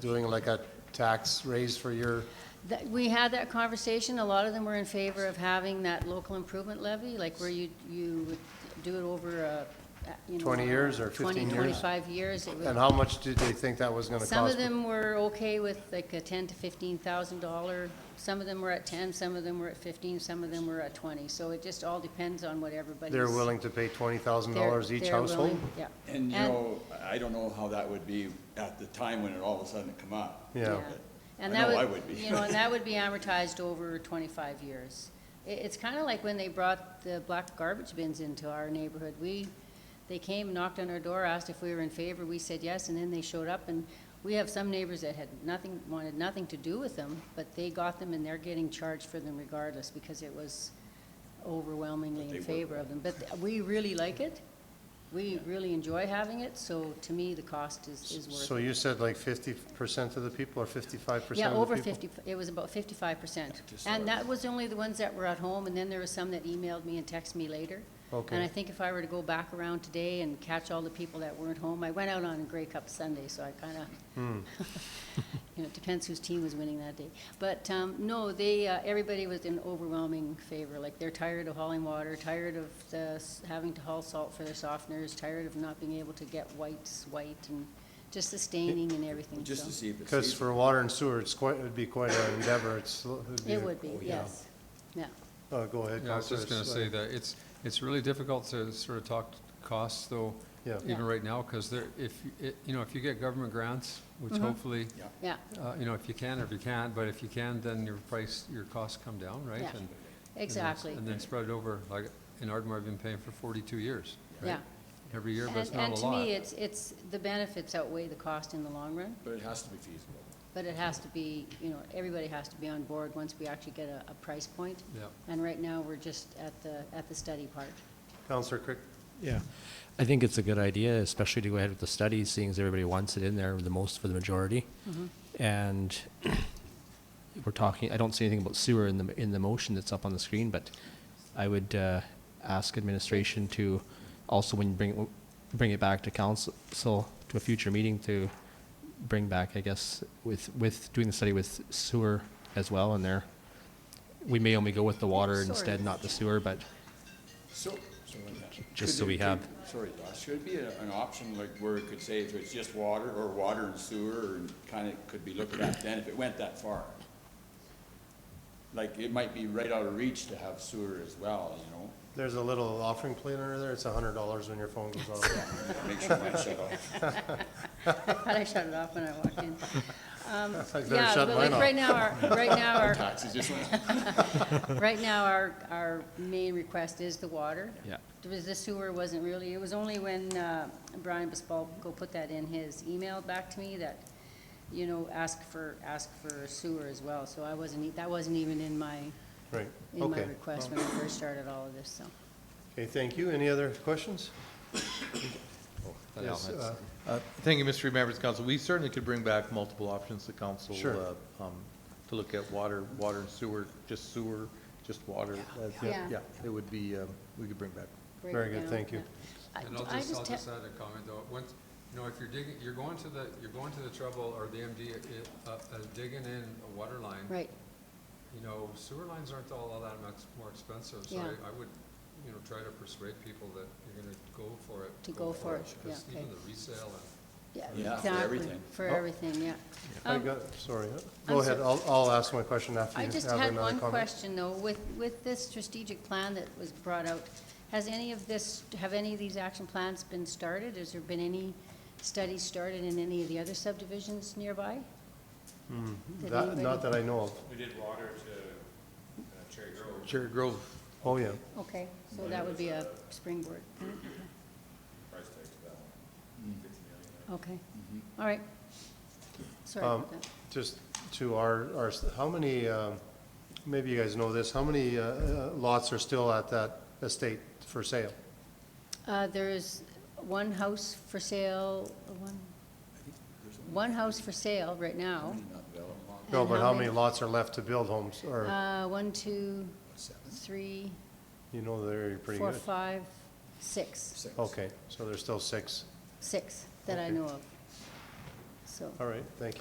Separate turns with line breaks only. doing like a tax raise for your,
That- We had that conversation, a lot of them were in favor of having that local improvement levy, like where you, you would do it over, uh, you know.
20 years or
20,
15 years?
25 years. It would-
and how much did they think that was gonna
Some of
cost?
them were okay with like a 10 to 15,000 dollar, some of them were at 10, some of them were at 15, some of them were at 20. So it just all depends on what everybody's.
They're willing to pay twenty thousand
they're-
dollars each
they're
household?
willing, Yeah.
And you know, I don't know how that would be at the time when it all of a sudden come up.
Yeah.
And
I
that
know
would,
I would be.
You know, and that would be amortized over twenty-five years. It, it's kind of like when they brought the black garbage bins into our neighborhood. We, they came, knocked on our door, asked if we were in favor, we said yes, and then they showed up, and we have some neighbors that had nothing, wanted nothing to do with them, but they got them and they're getting charged for them regardless, because it was overwhelmingly
But
in
they were-
favor of them. But th- we really like it, we really enjoy having it, so to me, the cost is, is worth it.
So you said like fifty percent of the people or fifty-five percent
Yeah,
of the
over
people?
fifty, it was about fifty-five percent.
Just
And
over.
that was only the ones that were at home, and then there were some that emailed me and texted me later. And I
Okay,
think if I were to go back around today and catch all the people that weren't home, I went out on Grey Cup Sunday, so I kinda,
Hmm.
you know, it depends whose team was winning that day. But, um, no, they, uh, everybody was in overwhelming favor, like they're tired of hauling water, tired of the, s- having to haul salt for their softeners, tired of not being able to get whites white and just the staining and everything,
Just
so.
to see if it's.
because
feasible.
for water and sewer, it's quite, it'd be quite an endeavor, it's. it'd
It
a-
would be,
oh, yeah.
yes, yeah.
Uh, go ahead,
Yeah, I was just
Counselor
gonna say
Sutton.
that it's, it's really difficult to sort of talk costs though,
Yeah.
Yeah.
even right now, because there, if, you- it- you know, if you get government grants,
Mm-hmm.
which hopefully,
Yeah.
Yeah,
uh, you know, if you can or if you can't, but if you can, then your price, your costs come down, right?
Yeah,
And- and then-
exactly,
And then spread it over, like in Ardmore, I've been paying for forty-two years,
yeah.
right? Every year, but
And-
it's not a lot.
And to me, it's, it's, the benefits outweigh the cost in the long run,
But it has to be feasible.
but it has to be, you know, everybody has to be on board once we actually get a, a price point.
Yeah.
And right now, we're just at the, at the study part.
Counselor Crick,
Yeah, I think it's a good idea, especially to go ahead with the study, seeing as everybody wants it in there the most for the majority. And we're talking, I don't see anything about sewer in the, in the motion that's up on the screen, but I would uh, ask administration to also, when you bring, bring it back to council, so to a future meeting to bring back, I guess, with, with doing the study with sewer as well in there. We may only go with the water
Sorry.
instead, not the sewer, but
So. so in that-
Just
could
so
it-
we have-
could- Sorry, Josh, should it be a- an option like where it could say if it's just water or water and sewer and kind of could be looked at then if it went that far? Like it might be right out of reach to have sewer as well, you know?
there's a little offering plate under there, it's a hundred dollars when your phone goes off.
Make sure my shut off.
I thought I shut it off when I walked in. Um,
I better
Yeah,
shut
but
mine
like
off.
right now, our, right now, our,
Taxes just went up.
Right now, our, our main request is the water.
Yeah.
There was- The sewer wasn't really, it was only when uh, Brian Bespalko put that in his email back to me that, you know, ask for, ask for sewer as well. So I wasn't, e- that wasn't even in my,
Right,
in my
okay.
request when I first started all of this, so.
Okay, thank you. Any other questions?
That
Yes,
helps.
uh,
Uh, Thank you, Mr. Members of Council. We certainly could bring back multiple options to council.
Sure.
uh, um, To look at water, water and sewer, just sewer, just water. uh,
Yeah.
Yeah, it would be, um, we could bring back.
break
Very
it
good,
down,
thank you.
yeah. I-
And I'll
I
just, I'll
te-
just add a comment though, once, you know, if you're digging, you're going to the, you're going to the trouble or the MD, uh, uh, digging in a water line.
Right,
You know, sewer lines aren't all that much more expensive, so
Yeah.
I, I would, you know, try to persuade people that you're gonna go for it.
To go for it, yeah,
Because even
okay.
the resale and
yeah,
Yeah, for
exactly,
everything.
for
Oh.
everything, yeah.
I
Um,
got, sorry. Go ahead,
so-
I'll, I'll ask my question after
I
you
just
have
had
another
one
comment.
question, though. With, with this strategic plan that was brought out, has any of this, have any of these action plans been started? Has there been any studies started in any of the other subdivisions nearby? Did
Hmm, That,
anybody-
not that I know of.
We did water to uh, Cherry Grove.
Cherry Grove,
Oh, yeah.
Okay, so that would be a springboard.
Price tag to that one.
Mm-hmm. Okay, all right.
Mm-hmm.
Sorry
Um,
about that.
Just to our, our, how many, um, maybe you guys know this, how many uh, uh, lots are still at that estate for sale?
Uh, there is one house for sale, one, one house for sale right now.
No,
And
but how many lots are left to build homes, or,
Uh, one, two, three,
you know, they're pretty
four,
good.
five, six.
Okay, so there's still six.
six that I
Okay.
know of. So.
All right, thank you.